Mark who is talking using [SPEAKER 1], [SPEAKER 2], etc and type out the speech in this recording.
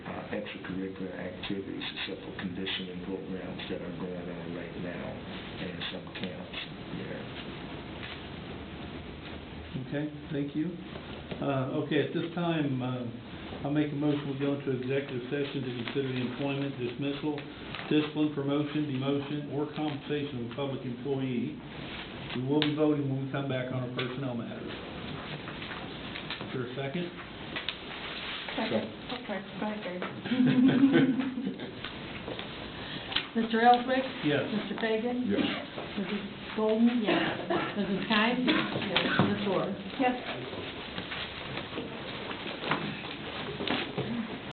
[SPEAKER 1] uh, extracurricular activities, except for conditioning programs that are going on right now in some camps there.
[SPEAKER 2] Okay, thank you. Uh, Okay, at this time, uh, I'll make a motion, we go into executive session to consider the employment dismissal, discipline, promotion, demotion, or compensation of a public employee. We will be voting when we come back on our personnel matters. Is there a second?
[SPEAKER 1] Second.
[SPEAKER 3] Okay, second. Mr. Elswick?
[SPEAKER 2] Yes.
[SPEAKER 3] Mr. Fagan?
[SPEAKER 1] Yes.
[SPEAKER 3] Mrs. Golden? Yes. Mrs. Kind? Yes. Ms. Orr? Yes.